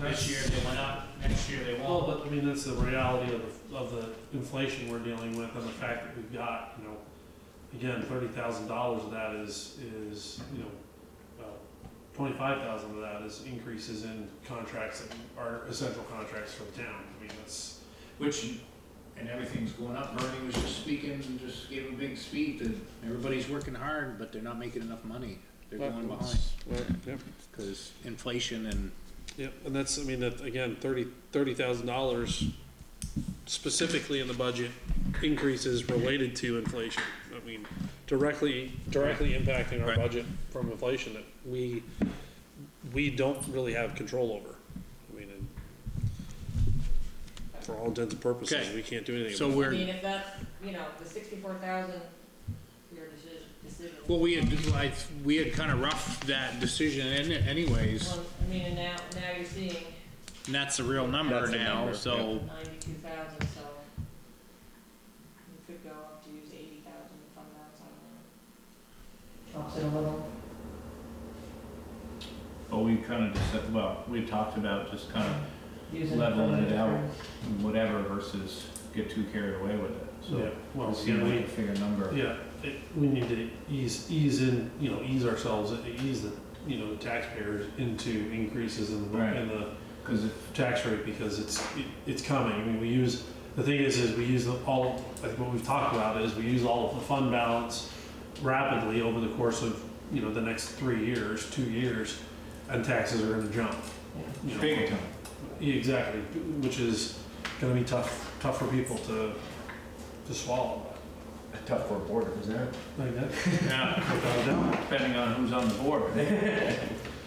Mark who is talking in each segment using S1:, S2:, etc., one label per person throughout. S1: This year they went up, next year they
S2: Well,
S1: won't.
S2: but I mean, that's the reality of, the- of the inflation we're dealing with and the fact that we've got, you know, again, thirty thousand dollars of that is, is, you know, uh, twenty-five thousand of that is increases in contracts that are essential contracts for the town. I mean, that's,
S1: Which, and everything's going up, Bernie was just speaking, and just gave a big speech, and everybody's working hard, but they're not making enough money. They're going behind,
S2: Yep,
S1: cause inflation and,
S2: yep, and that's, I mean, that, again, thirty, thirty thousand dollars specifically in the budget increases related to inflation. I mean, directly, directly impacting our
S1: Right.
S2: budget from inflation that we, we don't really have control over. I mean, and for all intents and purposes,
S1: Okay.
S2: we can't do anything.
S1: so
S2: about
S3: I
S1: we're,
S3: mean, if that's, you know, the sixty-four thousand, your decision, decision.
S1: well, we had, I, we had kinda roughed that decision in anyways,
S3: Well, I mean, and now, now you're seeing
S1: and that's the real number
S4: That's the
S1: now,
S4: number,
S1: so.
S3: ninety-two thousand, so you could go up to use eighty thousand to fund that, so I don't know. Drops it a little.
S4: But we kind of just, said- well, we talked about just kind of
S3: use for
S4: Leveling it
S3: other
S4: out.
S3: terms.
S4: whatever versus get too carried away with it,
S2: it. Yeah,
S4: so.
S2: well,
S4: See
S2: yeah,
S4: if we
S2: we,
S4: can figure a number.
S2: Yeah, it, we need to ease, ease in, you know, ease ourselves, ease the, you know, taxpayers into increases in the, in the
S4: Cause if,
S2: tax rate because it's, it- it's coming. I mean, we use, the thing is, is we use the- all, like what we've talked about is we use all of the fund balance rapidly over the course of, you know, the next three years, two years, and taxes are gonna jump. you know.
S4: big time.
S2: Yeah, Exactly, which is gonna be tough, tough for people to, to swallow.
S4: Tough for a board, isn't it?
S2: Like that,
S4: Yeah,
S2: without a doubt.
S4: depending on who's on the board.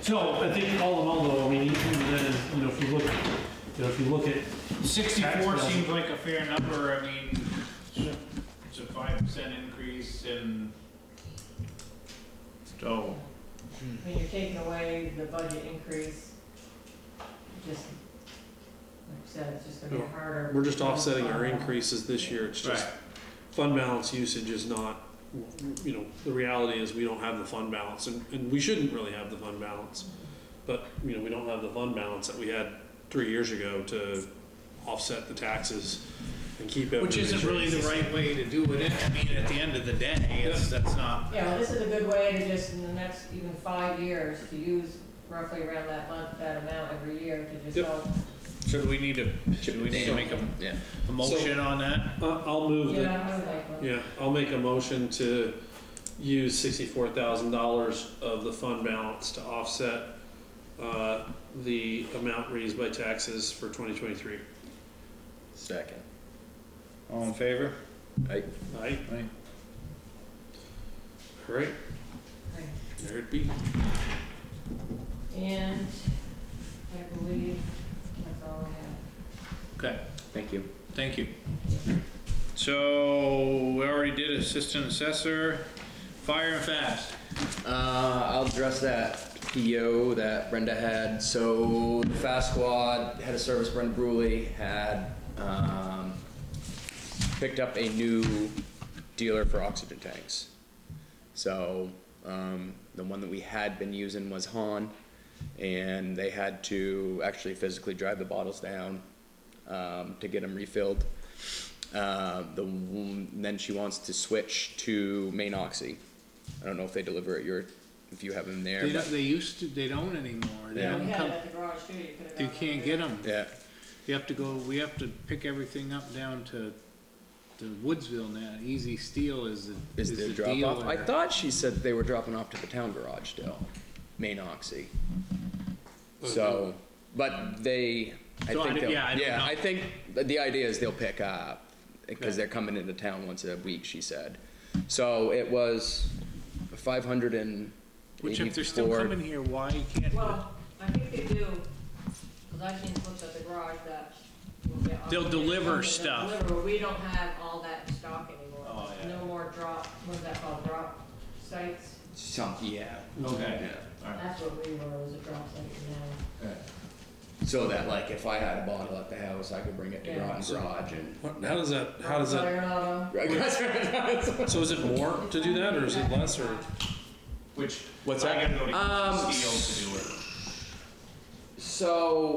S2: So I think all in all though, I mean, even then, you know, if you look, you know, if you look at Tax
S1: Sixty-four
S2: bill.
S1: seems like a fair number, I mean, it's a five percent increase and. So.
S3: I mean, you're taking away the budget increase, just, like I said, it's just gonna
S2: Yeah.
S3: be harder.
S2: We're just offsetting our increases this year, it's just, fund balance usage is not, you know, the reality is we don't have the fund balance, and, and we shouldn't really have the fund balance. But, you know, we don't have the fund balance that we had three years ago to offset the taxes and keep it.
S1: Which isn't really the right way to do it, I mean, at the end of the day, it's, that's not,
S3: Yeah, well, this is a good way to just, in the next even five years, to use roughly around that month, that amount every year to just
S2: Yep.
S3: help.
S1: so do we need to, do we need to make a,
S4: Yeah.
S1: a motion on that?
S2: Uh, I'll move that,
S3: Yeah, I would like one.
S2: yeah, I'll make a motion to use sixty-four thousand dollars of the fund balance to offset, uh, the amount raised by taxes for twenty twenty-three.
S4: Second.
S1: All in favor?
S2: Aye?
S1: Aye.
S2: Right,
S3: Okay.
S2: there it be.
S3: And I believe that's all I have.
S1: Okay,
S4: Thank you.
S1: thank you. So, we already did assistant assessor, fire and fast.
S5: Uh, I'll address that PO that Brenda had. So the Fast Squad head of service Brenda Bruley had um, picked up a new dealer for oxygen tanks. So um, the one that we had been using was Han, and they had to actually physically drive the bottles down um, to get them refilled. Uh, the one- then she wants to switch to main oxy. I don't know if they deliver at your if you have them there.
S1: They
S5: but-
S1: don't, they used to, they don't anymore, they
S5: Yeah.
S3: We
S1: don't
S3: had
S1: come,
S3: it at the garage too, you could have.
S1: you
S3: gone
S1: can't
S3: over
S1: get
S3: there.
S1: them.
S5: yeah.
S1: You have to go, we have to pick everything up down to, to Woodsville now. Easy Steel is the,
S5: Is,
S1: is
S5: the,
S1: the
S5: drop off? I
S1: dealer.
S5: thought she said they were dropping off to the town garage still, main oxy. So, but they, I
S1: Uh, So I
S5: think,
S1: don't-
S5: they'll-
S1: yeah, I don't know.
S5: yeah, I think the- the idea is they'll pick up, because they're coming into town once a week, she said. So it was five hundred and
S1: Which if they're still
S5: eighty-four.
S1: coming here, why can't,
S3: Well, I think they do, because I've seen books at the garage that. will get all
S1: They'll
S3: the-
S1: deliver
S3: they'll
S1: stuff.
S3: deliver, but we don't have all that in stock anymore.
S1: Oh, yeah.
S3: No more drop, what's that called, drop sites?
S5: Some, yeah,
S1: okay.
S5: yeah.
S3: That's what we were, was a drop site now.
S5: So that like if I had a bottle at the house, I could bring it to
S3: Yeah.
S5: Groton Garage and.
S2: What- How does that, how does that,
S3: Fire alarm.
S2: so is it more to do that or is it less or?
S1: Which,
S5: What's
S1: I gotta go to
S5: Um,
S1: Easy Steel to do it.
S5: So